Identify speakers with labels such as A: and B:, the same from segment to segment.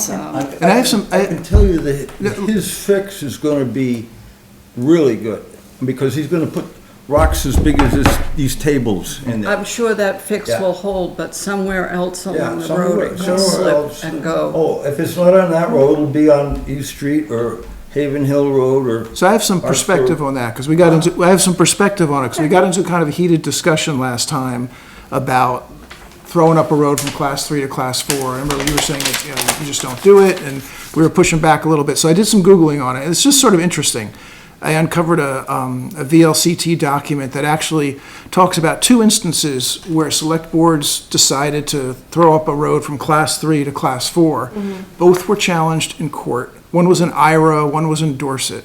A: So,
B: And
C: I have some-
B: I can tell you that
C: No.
B: his fix is gonna be really good, because he's gonna put rocks as big as this, these tables in there.
A: I'm sure that fix
B: Yeah.
A: will hold, but somewhere else along
B: Yeah,
A: the road
B: somewhere,
A: it could
B: somewhere else.
A: slip and go.
B: Oh, if it's not on that road, it'll be on East Street or Haven Hill Road or.
C: So I have some
B: Our
C: perspective
B: store.
C: on that, because we got into, I have some perspective on it, because we got into kind of a heated discussion last time about throwing up a road from class three to class four. I remember you were saying that, you know, you just don't do it, and we were pushing back a little bit. So I did some Googling on it, and it's just sort of interesting. I uncovered a, um, a VLCT document that actually talks about two instances where select boards decided to throw up a road from class three to class four. Both were challenged in court. One was in Ira, one was in Dorset.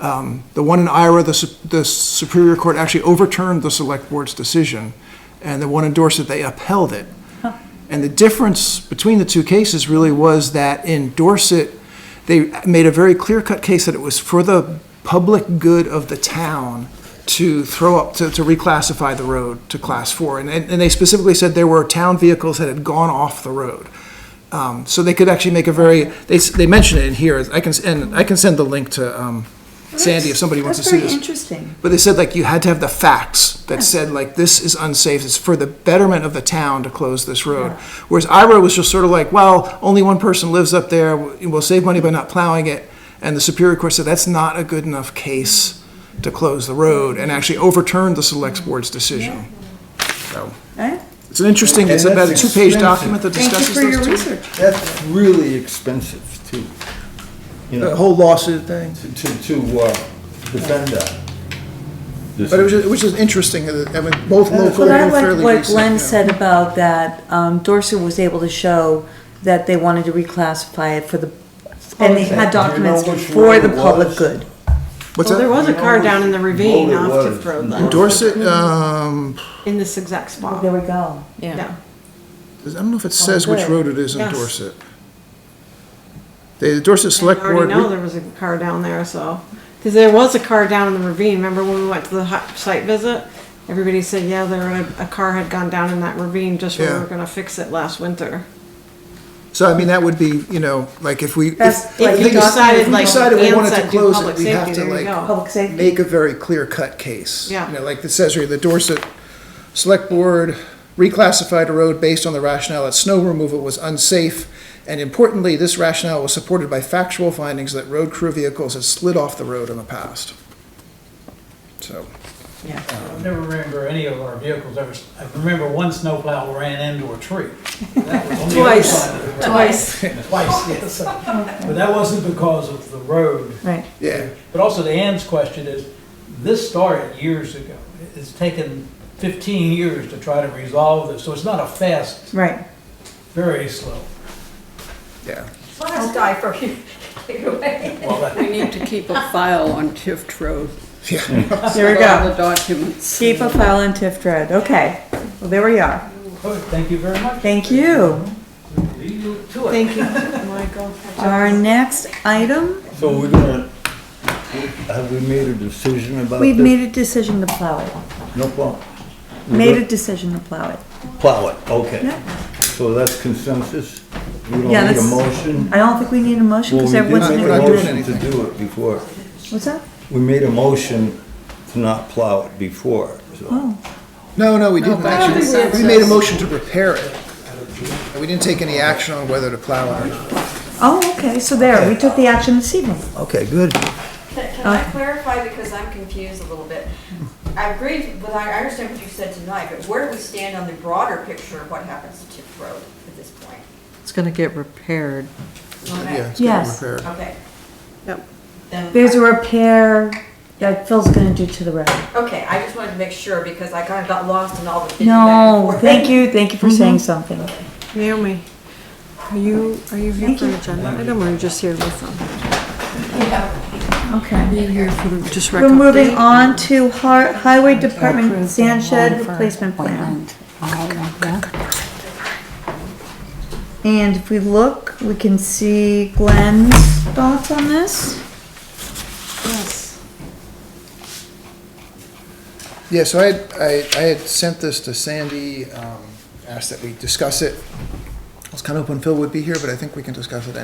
C: Um, The one in Ira, the Sup- the Superior Court actually overturned the Select Board's decision, and the one in Dorset, they upheld it. And the difference between the two cases really was that in Dorset, they made a very clear-cut case that it was for the public good of the town to throw up, to, to reclassify the road to Class 4. And, and and they specifically said there were town vehicles that had gone off the road. Um, So they could actually make a very, they, s- they mention it in here, I can, s- and I can send the link to um, Sandy if somebody wants to see
D: That's
C: this.
D: very interesting.
C: But they said like you had to have the facts that said like this is unsafe. It's for the betterment of the town to close this road. Whereas Ira was just sort of like, well, only one person lives up there. We'll save money by not plowing it. And the Superior Court said that's not a good enough case to close the road and actually overturned the Select Board's decision. So
D: Eh?
C: it's an interesting. It's
B: And
C: about a
B: that's
C: two-page
B: expensive.
C: document that
D: Thank you
C: discusses
D: for your
C: those two.
D: research.
B: That's really expensive to, you
C: The
B: know,
C: whole lawsuit thing.
B: to, to, to, uh, defend that.
C: But it was just, it was just interesting. that, I mean, both
B: Well,
C: local
D: But I
C: and
D: like
C: fairly
D: what
C: recent,
D: Glenn
C: yeah.
D: said about that, um, Dorset was able to show that they wanted to reclassify it for the, and they had
B: Do you know
D: documents
B: which
D: for
B: road
D: the
B: it
D: public
B: was?
D: good.
C: What's
E: Well, there
C: that?
E: was a car down in the ravine
B: Well, it
E: off
B: was.
E: Tift Road,
C: In
E: though,
C: Dorset. Um,
E: in this exact
D: There
E: spot.
D: we go.
E: Yeah.
C: I don't know if it says which
D: good.
C: road it is in
E: Oh, Yes.
C: Dorset. The Dorset
E: I
C: Select Board,
E: already know
C: re-
E: there was a car down there, so, because there was a car down in the ravine, remember when we went to the hot site visit? Everybody said, yeah, there, a, a car had gone down in that ravine just when we
C: Yeah.
E: were gonna fix it last winter.
C: so I mean, that would be, you know, like if we,
D: That's
C: if
D: like
E: If
D: the
E: you
C: we
D: doc-
E: decided,
C: we
E: like
C: decided we
E: Dan
C: wanted to
E: said, do
C: close it,
E: public
C: we'd have
E: safety,
C: to,
E: there you
C: like,
E: go.
D: Public safety.
C: make a very clear-cut case.
E: Yeah.
C: You know, like the says here, the Dorset Select Board reclassified a road based on the rationale that snow removal was unsafe. And importantly, this rationale was supported by factual findings that road crew vehicles had slid off the road in the past. So,
F: I never remember any of our vehicles ever, I remember one snowplow ran into a tree. That was on the other
E: Twice.
F: side of the road.
E: Twice.
F: Twice, yes. But that wasn't because of the road.
D: Right.
C: yeah,
F: But also to Ann's question is, this started years ago. It's taken 15 years to try to resolve this, so it's not a fast,
D: Right.
F: very slow.
C: yeah.
G: Let's die for you.
F: Well, that-
A: We need to keep a file on Tift Road.
D: There we
A: with All
D: go.
A: the documents.
D: Keep a file on Tiff Dread. Okay. Well, there we are.
F: Good, Thank you very much.
D: Thank you.
F: Leave you to it.
E: Thank you, Michael.
D: Our next item,
B: So we're gonna, have we made a decision about
D: we've
B: this?
D: made a decision to plow it.
B: No problem.
D: Made a decision to plow it.
B: Plow it, okay.
D: Yeah.
B: So that's consensus? We don't
D: Yeah,
B: need a
D: that's-
B: motion?
D: I don't think we need a motion
B: Well, we
D: because
B: did
D: everyone's.
B: make
C: we're not
B: a
D: gonna-
C: doing
B: motion to
C: anything.
B: do it before.
D: What's that?
B: We made a motion to not plow it before, so.
C: No, no, we didn't
A: think we
C: actually.
A: have
C: We made a motion to repair it. We didn't take any action on whether to plow it or not.
D: Oh, okay. So there, we took the action this evening.
B: Okay, good.
G: Can can I clarify, because I'm confused a little bit? I agree with, I understand what you said tonight, but where do we stand on the broader picture of what happens to Tiff Road at this point?
A: It's gonna get repaired.
C: Yeah,
G: Okay.
C: it's gotta be
D: Yes.
C: repaired.
G: Okay.
E: Yep.
G: Then-
D: There's a repair that Phil's gonna do to the road.
G: Okay, I just wanted to make sure, because I kind of got lost in all the.
D: No, thank you, thank you for saying something.
E: Naomi, are you, are you here
D: Thank
E: for an
D: you.
E: agenda item, or are you just here to listen?
D: Okay.
A: Here for the- Just
D: We're
A: record.
D: moving on to Har- Highway Department sand shed replacement plan. And if we look, we can see Glenn's thoughts on this.
E: Yes.
C: Yeah, so I, had- I, I had sent this to Sandy, um, asked that we discuss it. I was kind of hoping Phil would be here, but I think we can discuss it